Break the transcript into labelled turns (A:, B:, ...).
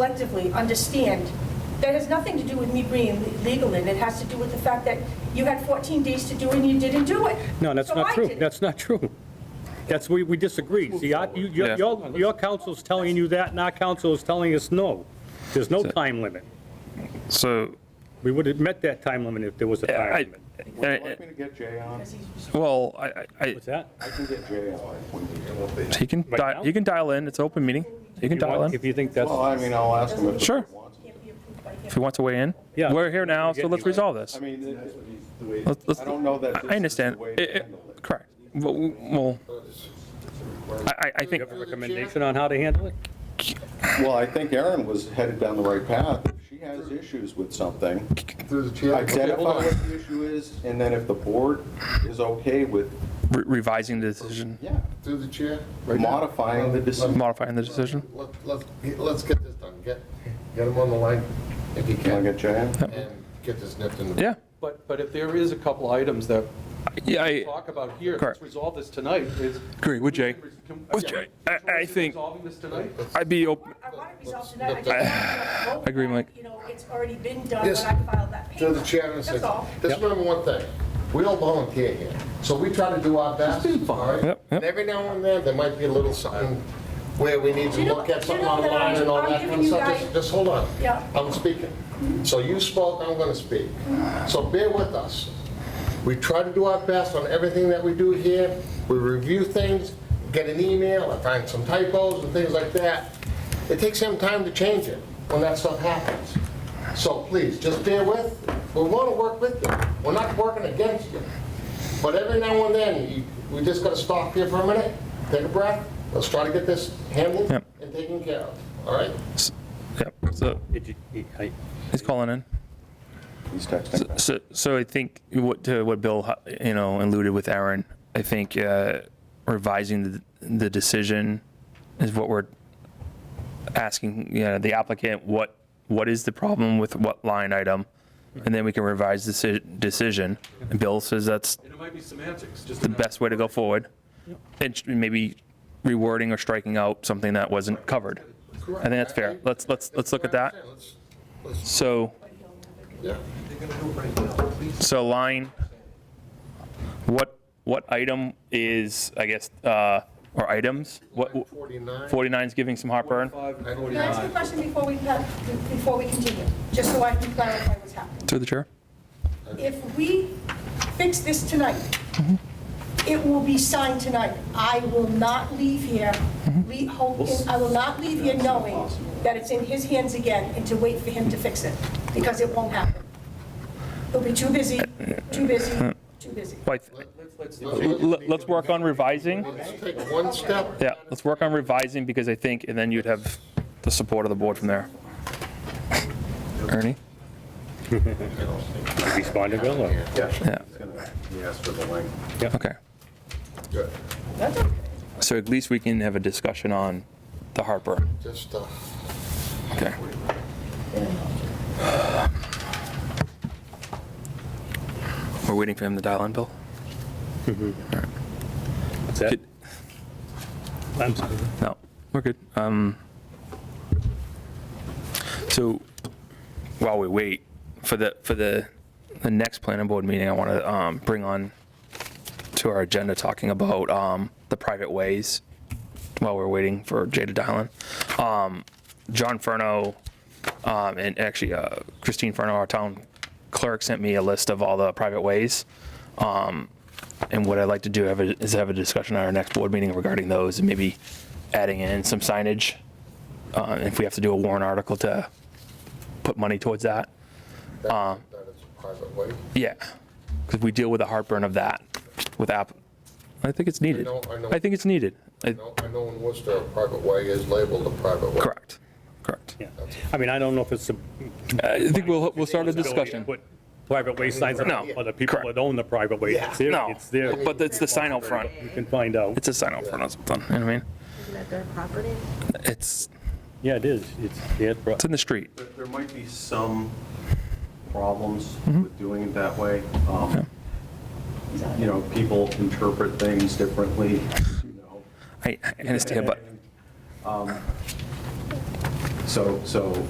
A: collectively understand, that has nothing to do with me being legal in, it has to do with the fact that you had 14 days to do it and you didn't do it.
B: No, that's
A: So I
B: not true.
A: did it.
B: That's not true. That's, we, we disagree. See, our- you- your,
C: Yeah.
B: your your council's telling you that, and our council is telling us no. There's no time limit.
C: So,
B: We would have met that time limit if there was a time
C: I,
B: limit.
D: Would you like
C: I-
D: me to get Jay on?
C: well, I, I,
B: What's that?
D: I can get Jay on.
C: he can,
B: Right now?
C: di- you can dial in, it's an open meeting, you
B: You
C: can dial
B: want-
C: in,
B: If you think that's,
D: Well, I mean, I'll ask him if he
C: Sure.
D: wants. it.
C: if he wants to weigh in.
B: Yeah.
C: We're here now, so
B: We're
C: let's
B: getting-
C: resolve this.
D: I mean, it-
C: Let's- let's-
D: I don't know that
C: I-
D: this is
C: I
D: the
C: understand,
D: way
C: It-
D: to
C: it-
D: handle it.
C: correct, well, well, I, I- I
B: you
C: think,
B: have a recommendation on how to handle it?
D: Well, I think Erin was headed down the right path. If she has issues with something,
E: Through the chair. Okay,
D: identify
E: hold on.
D: what the issue is, and then if the board is okay with,
C: re- revising the decision,
D: yeah,
E: Through the chair. Right now.
D: modifying the decision.
C: modifying the decision.
E: Let- Let's, let's get this done. Get, get him on the line if you
D: Can I
E: can
D: get Jay on?
E: and get this nipped in the.
C: Yeah,
F: But, but if there is a couple items that
C: yeah,
F: we
C: I,
F: talk about here,
C: Correct.
F: let's resolve this tonight. It's-
C: Agree with Jay.
F: Can-
C: With
F: yeah.
C: Jay. I- I think-
F: Resolving this tonight?
C: I'd be open,
A: I want it resolved tonight, I just want to know.
C: I agree, Mike.
A: You know, it's already been done when I
E: Yes.
A: filed that paper.
E: Through the chair in a
A: That's
E: second.
A: all.
E: Just remember one thing. We don't volunteer here. So we try to do our best. all right?
C: Yep, yep.
E: And every now and then, there might be a little something where we need to
A: You know-
E: look at
A: you
E: something
A: know that
E: online and all
A: I'm
E: that
A: giving
E: kind of
A: you
E: stuff.
A: guys-
E: Just- Just hold on.
A: Yeah.
E: I'm speaking. So you spoke, I'm going to speak. So bear with us. We try to do our best on everything that we do here. We review things, get an email, I find some typos and things like that. It takes some time to change it when that stuff happens. So please, just bear with, we want to work with you. We're not working against you. But every now and then, you- we just got to stop here for a minute, take a breath, let's try to get this handled
C: Yep.
E: and taken care of, all right?
C: yep, so,
B: Did you- I-
C: he's calling in.
D: He's texting.
C: So, so I think what, to what Bill, uh, you know, alluded with Aaron, I think uh, revising the, the decision is what we're asking, you know, the applicant, what, what is the problem with what line item? And then we can revise the deci- decision. And Bill says that's
F: And it might be semantics, just.
C: the best way to go forward. And sh- maybe rewording or striking out something that wasn't covered. I think that's fair. Let's, let's, let's look at that. So.
E: Yeah.
C: So line, what, what item is, I guess, uh, or items? What,
E: 49.
C: 49's giving some heartburn?
F: Five and
A: Can I ask a
F: 49.
A: question before we, uh, before we continue, just so I can clarify what's happening?
C: Through the chair?
A: If we fix this tonight, it will be signed tonight. I will not leave here, le- hope- I will not leave here knowing that it's in his hands again and to wait for him to fix it, because it won't happen. He'll be too busy, too busy, too busy.
C: Like,
F: Let's- let's-
C: l- Let's work on revising.
E: Let's take one step.
C: Yeah, let's work on revising because I think, and then you'd have the support of the board from there. Ernie?
B: Respond to Bill, or-
C: Yeah,
D: He asked for the link.
C: okay.
E: Good.
A: That's okay.
C: So at least we can have a discussion on the heartburn.
E: Just, uh,
C: Okay. We're waiting for him to dial in, Bill?
B: what's that? I'm sorry.
C: No, we're good. Um, so while we wait for the, for the, the next planning board meeting, I want to, um, bring on to our agenda talking about, um, the private ways while we're waiting for Jada Dylan. Um, John Furno, um, and actually, uh, Christine Furno, our town clerk sent me a list of all the private ways. Um, and what I'd like to do have a- is have a discussion at our next board meeting regarding those and maybe adding in some signage. uh, If we have to do a warrant article to put money towards that.
E: that that is a private way.
C: Yeah, because we deal with the heartburn of that with app. I think it's needed.
E: I know- I know.
C: I think it's needed. I-
E: No, I know in Worcester, a private way is labeled a private way.
C: Correct, correct.
B: Yeah. I mean, I don't know if it's a
C: I think we'll, we'll start
B: disability
C: a
B: to
C: discussion.
B: put private way signs up
C: No,
B: for the people
C: correct.
B: that own the private way. It's there,
C: No,
B: it's there.
C: but it's the sign out front.
B: You can find out.
C: It's a sign out front or something, you know what I mean?
G: Isn't that their property?
C: It's,
B: Yeah, it is. It's, yeah, it's
C: it's in the street.
D: There- There might be some problems
C: Mm-hmm.
D: with doing it that way. Um, You know, people interpret things differently, you know.
C: I I understand, but
D: Um, So, so